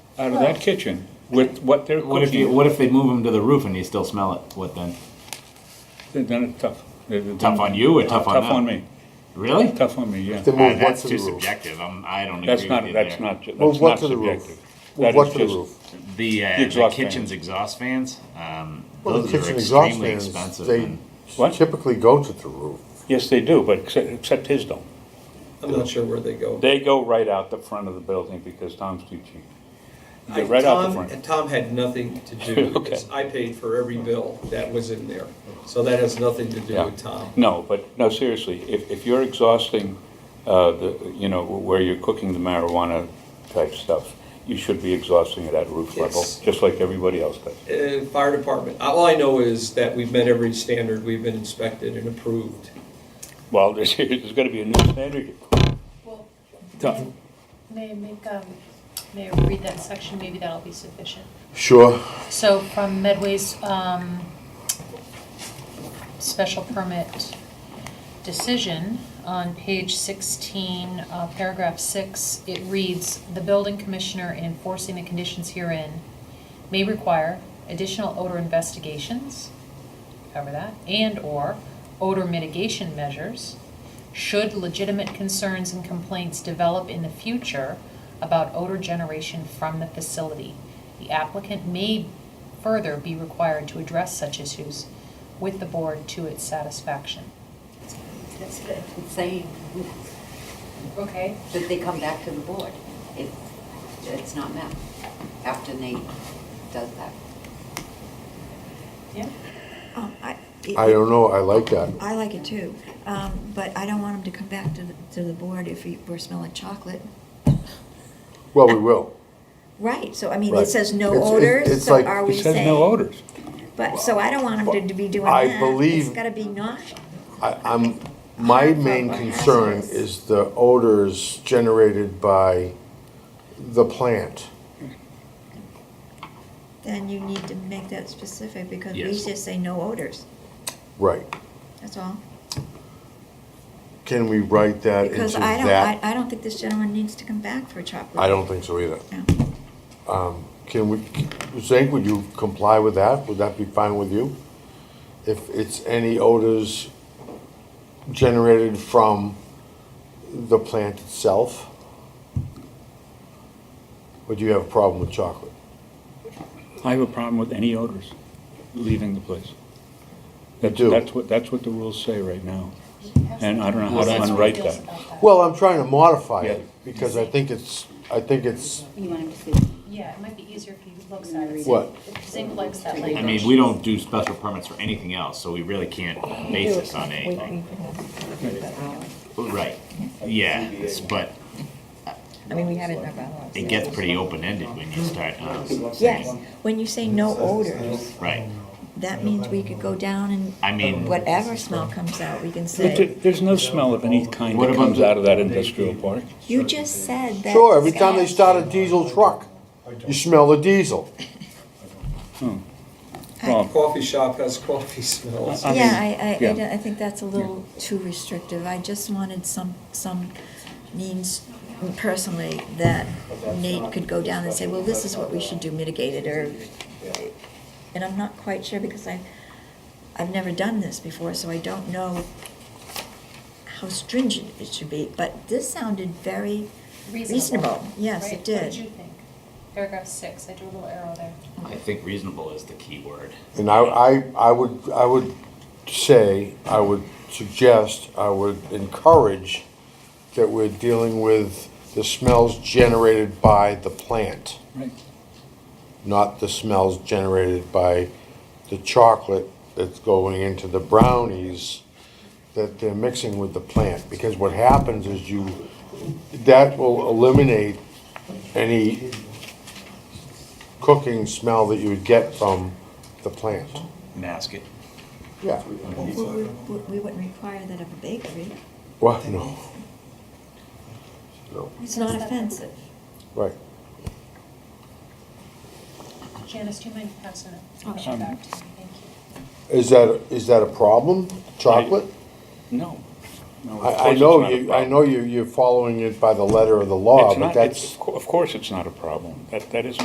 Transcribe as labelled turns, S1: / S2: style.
S1: out of that kitchen with what they're
S2: What if you,
S1: cooking,
S2: what if they move them to the roof and you still smell it? What then?
S1: then then it's tough. They've done-
S2: Tough on you or tough on
S1: Tough
S2: them?
S1: on me,
S2: Really?
S1: tough on me, yeah.
S3: They
S2: Ah,
S3: move what
S2: that's
S3: to the
S2: too
S3: roof?
S2: subjective. I'm, I don't
S1: That's
S2: agree with
S1: not,
S2: you
S1: that's
S2: there.
S1: not, ju-
S3: Move
S1: that's
S3: what
S1: not
S3: to the roof?
S1: subjective.
S3: Move
S1: That
S3: what
S1: is
S3: to the
S1: just-
S3: roof?
S2: The, uh,
S1: The
S2: the
S1: exhaust
S2: kitchen's exhaust fans, um,
S3: Well, the
S2: those are
S3: kitchen exhaust
S2: extremely
S3: fans,
S2: expensive.
S3: they
S2: and-
S1: What?
S3: typically go to the roof.
S1: Yes, they do, but except, except his don't.
S4: I'm not sure where they go.
S1: They go right out the front of the building because Tom's too cheap.
S4: I-
S1: They're right out the
S4: Tom-
S1: front.
S4: And Tom had nothing to do with this. I paid for every bill that was in there. So that has nothing to do
S1: Yeah.
S4: with Tom.
S1: No, but, no, seriously, if, if you're exhausting, uh, the, you know, where you're cooking the marijuana type stuff, you should be exhausting it at roof level,
S4: Yes.
S1: just like everybody else does.
S4: Uh, Fire department, all I know is that we've met every standard, we've been inspected and approved.
S1: Well, there's, there's gonna be a new standard.
S5: Well,
S1: Tough.
S5: may I make, um, may I read that section, maybe that'll be sufficient.
S3: Sure.
S5: So from Medway's, um, special permit decision, on page sixteen, uh, paragraph six, it reads, "The building commissioner in enforcing the conditions herein may require additional odor investigations," cover that, "and/or odor mitigation measures, should legitimate concerns and complaints develop in the future about odor generation from the facility, the applicant may further be required to address such issues with the board to its satisfaction.
S6: That's good, it's saying
S5: Okay.
S6: that they come back to the board if it's not met, after Nate does that.
S5: Yeah.
S7: Um, I,
S3: I
S7: it-
S3: don't know, I like that.
S7: I like it too, um, but I don't want him to come back to, the- to the board if he- we're smelling chocolate.
S3: Well, we will.
S7: Right, so I mean,
S3: Right.
S7: it says no
S3: It's- it's-
S7: odors,
S3: it's
S7: so
S3: like-
S7: are we
S1: It
S7: saying?
S1: says no odors.
S7: But, so I don't want him to be doing
S3: I
S7: that.
S3: believe-
S7: It's gotta be nauseous.
S3: I, I'm, my main concern is the odors generated by the plant.
S7: Then you need to make that specific, because we
S2: Yes.
S7: just say no odors,
S3: Right.
S7: that's all.
S3: Can we write that
S7: Because
S3: into
S7: I don't, I,
S3: that?
S7: I don't think this gentleman needs to come back for chocolate.
S3: I don't think so either.
S7: No.
S3: Can we, Zink, would you comply with that? Would that be fine with you? If it's any odors generated from the plant itself? Or do you have a problem with chocolate?
S1: I have a problem with any odors leaving the place. That-
S3: do?
S1: That's what, that's what the rules say right now. And I don't know how
S5: Well,
S1: to
S5: that's what
S1: unwrite
S5: it feels
S1: that.
S5: about that.
S3: Well, I'm trying to modify
S1: Yeah.
S3: it, because I think it's, I think it's,
S6: You want him to see?
S5: Yeah, it might be easier if you look at it.
S3: What?
S5: Zink likes that language.
S2: I mean, we don't do special permits for anything else, so we really can't base this on anything. uh, Right, yeah, it's- but
S8: I mean, we have it in our bylaws.
S2: it gets pretty open-ended when you start, um,
S7: Yes, when you say no odors,
S2: right.
S7: that means we could go down and.
S2: I mean-
S7: Whatever smell comes out, we can
S1: But there-
S7: say,
S1: There's no smell of any kind
S2: What
S1: that
S2: about
S1: comes
S2: the-
S1: out of that industrial park.
S7: you just said that.
S3: sure, every time they
S7: Scott-
S3: start a diesel truck, you smell the diesel.
S1: Well,
S4: Coffee shop has coffee smells.
S1: I mean,
S7: Yeah, I, I- I,
S1: yeah.
S7: don't- I think that's a little too restrictive. I just wanted some, some means personally that Nate could go down and say, well, this is what we should do, mitigate it, or, and I'm not quite sure because I, I've never done this before, so I don't know how stringent it should be, but this sounded very, Reasonable. Yes, it
S5: Right? What
S7: did.
S5: did you think? Paragraph six, I drew a little arrow there.
S2: I think reasonable is the key word.
S3: And I, I, I would, I would say, I would suggest, I would encourage that we're dealing with the smells generated by the plant,
S1: Right.
S3: not the smells generated by the chocolate that's going into the brownies that they're mixing with the plant. Because what happens is you, that will eliminate any cooking smell that you would get from the plant.
S2: Mask it.
S3: Yeah.
S7: we, we- we wouldn't require that of a bakery.
S3: Well, no. No,
S7: It's not offensive.
S3: right.
S5: Janice, do you mind passing
S1: Um,
S7: Oh,
S5: it
S7: sure.
S5: back to me? Thank you.
S3: Is that, is that a problem, chocolate?
S1: No. No, of
S3: I, I
S1: course it's
S3: know
S1: not a
S3: you, I
S1: problem.
S3: know you, you're following it by the letter of the law,
S1: It's
S3: but
S1: not- it's-
S3: that's.
S1: Of cour- of course, it's not a problem. That, that is